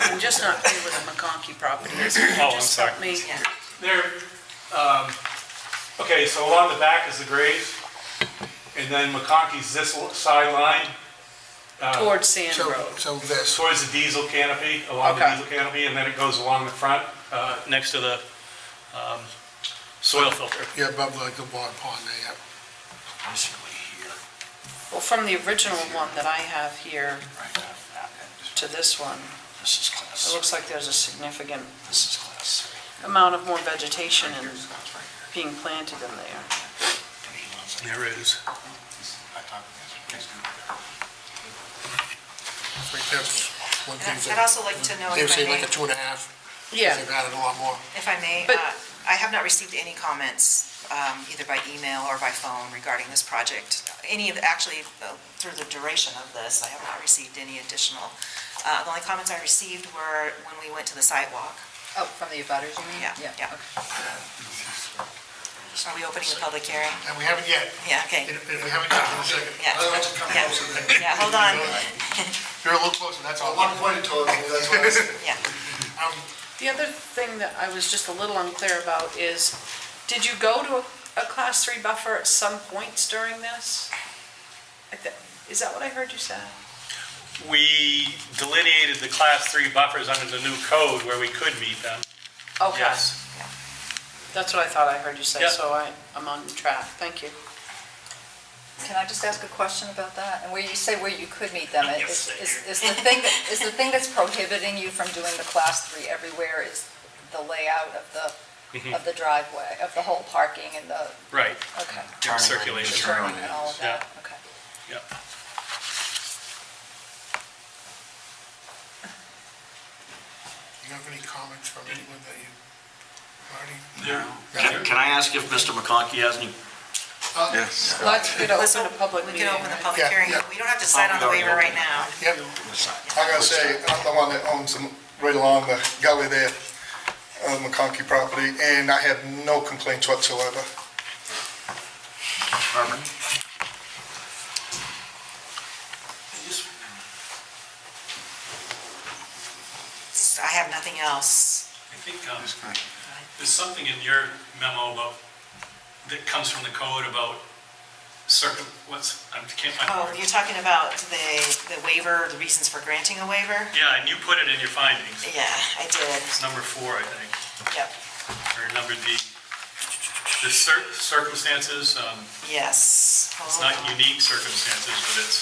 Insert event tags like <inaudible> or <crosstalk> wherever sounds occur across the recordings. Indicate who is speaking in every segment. Speaker 1: I'm just not clear what the McConkey property is. Can you
Speaker 2: Oh, I'm
Speaker 1: just
Speaker 2: sorry.
Speaker 1: help me?
Speaker 2: There, um, okay, so along the back is the grade, and then McConkey's this sideline
Speaker 1: Towards Sand
Speaker 3: So,
Speaker 1: Road.
Speaker 3: so this,
Speaker 2: towards the diesel canopy, along the
Speaker 1: Okay.
Speaker 2: diesel canopy, and then it goes along the front, uh, next to the um, soil filter.
Speaker 3: yeah, above like the water pond there, yeah.
Speaker 4: Basically here,
Speaker 1: Well, from the original one that I have here
Speaker 4: right down to that end.
Speaker 1: to this one,
Speaker 4: This is
Speaker 1: it
Speaker 4: class,
Speaker 1: looks like there's a significant
Speaker 4: this is class three.
Speaker 1: amount of more vegetation and
Speaker 4: Here's that's right here.
Speaker 1: being planted in there.
Speaker 4: And he wants it.
Speaker 2: There it is.
Speaker 4: I talked to him, he's good there.
Speaker 3: I think that's one
Speaker 5: And
Speaker 3: thing
Speaker 5: I-
Speaker 3: that,
Speaker 5: I'd also like to know,
Speaker 3: they were
Speaker 5: if I
Speaker 3: saying like
Speaker 5: may,
Speaker 3: a two and a half,
Speaker 1: Yeah,
Speaker 3: they've added a lot more.
Speaker 5: if I may,
Speaker 1: But-
Speaker 5: uh, I have not received any comments, um, either by email or by phone regarding this project. Any of, actually, uh, through the duration of this, I have not received any additional. uh, The only comments I received were when we went to the sidewalk.
Speaker 6: Oh, from the abutters, you mean?
Speaker 5: Yeah, yeah. Are we opening the public hearing?
Speaker 3: And we haven't yet,
Speaker 5: Yeah, okay.
Speaker 3: and and we haven't yet, one second.
Speaker 5: Yeah.
Speaker 7: I want to come
Speaker 5: Yeah.
Speaker 7: closer then.
Speaker 5: Yeah, hold on,
Speaker 3: You're a little closer, that's all.
Speaker 7: At one point it told me, that's why I said.
Speaker 5: yeah.
Speaker 3: Um,
Speaker 1: the other thing that I was just a little unclear about is, did you go to a, a class three buffer at some points during this? I thi- Is that what I heard you say?
Speaker 2: We delineated the class three buffers under the new code where we could meet them,
Speaker 1: Okay,
Speaker 2: yes.
Speaker 1: that's what I thought I heard you say,
Speaker 2: Yeah.
Speaker 1: so I, I'm on track, thank you.
Speaker 6: Can I just ask a question about that? And where you say where you could meet them,
Speaker 2: Yes,
Speaker 6: is,
Speaker 2: thank
Speaker 6: is is the thing, that- is the thing that's prohibiting you from doing the class three everywhere is the layout of the, of the driveway, of the whole parking and the,
Speaker 2: Right,
Speaker 6: okay.
Speaker 4: Turning lanes,
Speaker 2: Circulation.
Speaker 6: the
Speaker 4: turning
Speaker 6: turning and all of
Speaker 4: lanes.
Speaker 6: that, okay.
Speaker 2: yep.
Speaker 3: <laughs> You have any comments from anyone that you, already?
Speaker 8: Can can I ask if Mr. McConkey has any
Speaker 4: Yes.
Speaker 1: Let's get open
Speaker 5: Let's
Speaker 1: a
Speaker 5: op-
Speaker 1: public
Speaker 5: We
Speaker 1: meeting.
Speaker 5: can open the
Speaker 1: right?
Speaker 5: public
Speaker 3: Yeah,
Speaker 5: hearing.
Speaker 3: yeah.
Speaker 5: We don't have to decide on the waiver right now.
Speaker 3: Yep,
Speaker 7: I gotta say, I'm the one that owns them right along the gully there, uh, McConkey property, and I have no complaints whatsoever.
Speaker 8: permit?
Speaker 5: I have nothing else.
Speaker 2: I think um, there's something in your memo about, that comes from the code about circum, what's, I can't find the
Speaker 5: Oh,
Speaker 2: word.
Speaker 5: you're talking about the, the waiver, the reasons for granting a waiver?
Speaker 2: Yeah, and you put it in your findings,
Speaker 5: Yeah, I did,
Speaker 2: it's number four, I think,
Speaker 5: yep,
Speaker 2: or number D. The cir- circumstances, um,
Speaker 5: yes.
Speaker 2: it's not
Speaker 5: Hold on.
Speaker 2: unique circumstances, but it's,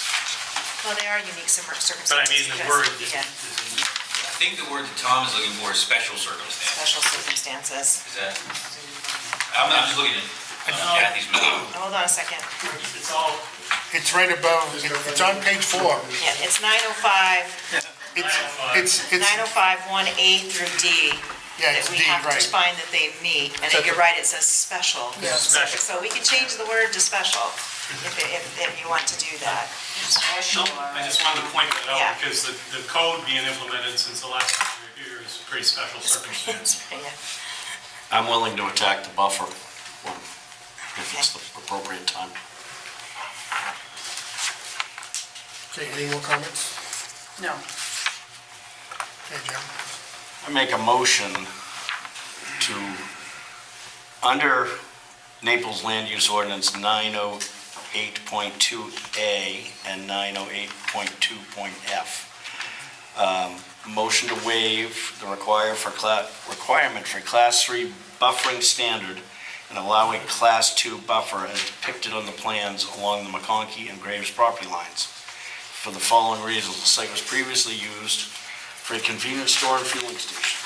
Speaker 5: Well, they are unique cir- circumstances.
Speaker 2: but I mean, the word
Speaker 5: because-
Speaker 2: is
Speaker 5: Yeah,
Speaker 2: is in
Speaker 9: I think the word that Tom is looking for is special circumstance.
Speaker 5: special circumstances.
Speaker 9: Is that, I'm I'm just looking at um, Kathy's memo.
Speaker 5: Hold on a second,
Speaker 2: It's all,
Speaker 3: it's right above, it's on page four.
Speaker 5: yeah, it's 905,
Speaker 3: It's, it's, it's,
Speaker 5: 905, 1A through D.
Speaker 3: yeah, it's D,
Speaker 5: That we have to
Speaker 3: right.
Speaker 5: find that they meet, and that you're right, it says special.
Speaker 3: Yeah.
Speaker 2: Special.
Speaker 5: So we can change the word to special, if, if, if you want to do that.
Speaker 2: no, I just wanted to point that
Speaker 5: Yeah.
Speaker 2: out, because the, the code being implemented since the last time we were here is a pretty
Speaker 5: <laughs>
Speaker 2: special circumstance.
Speaker 5: Yeah.
Speaker 8: I'm willing to attack the buffer when- if it's the appropriate time.
Speaker 3: Okay, any more comments?
Speaker 1: No,
Speaker 3: Okay, Jim?
Speaker 8: I make a motion to, under Naples Land Use Ordinance 908.2A and 908.2.f, um, motion to waive the require for, cla- requirement for Class 3 buffering standard and allow a Class 2 buffer as depicted on the plans along the McConkey and Graves property lines. For the following reasons, the site was previously used for a convenience store and fueling station.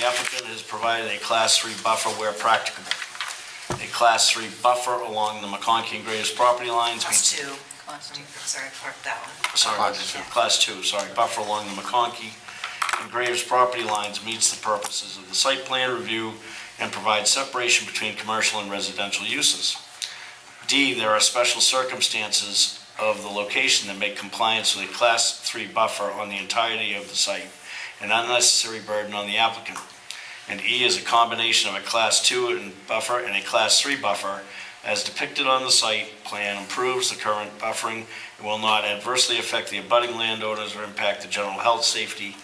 Speaker 8: The applicant has provided a Class 3 buffer where practicable. A Class 3 buffer along the McConkey and Graves property lines meets
Speaker 5: Class two, sorry, park that one.
Speaker 8: sorry,
Speaker 5: Class
Speaker 8: this is
Speaker 5: two.
Speaker 8: class two, sorry, buffer along the McConkey and Graves property lines meets the purposes of the site plan review and provides separation between commercial and residential uses. D, there are special circumstances of the location that make compliance with a class three buffer on the entirety of the site an unnecessary burden on the applicant. And E is a combination of a class two and buffer and a class three buffer as depicted on the site plan improves the current buffering it will not adversely affect the abutting landowners or impact the general health, safety,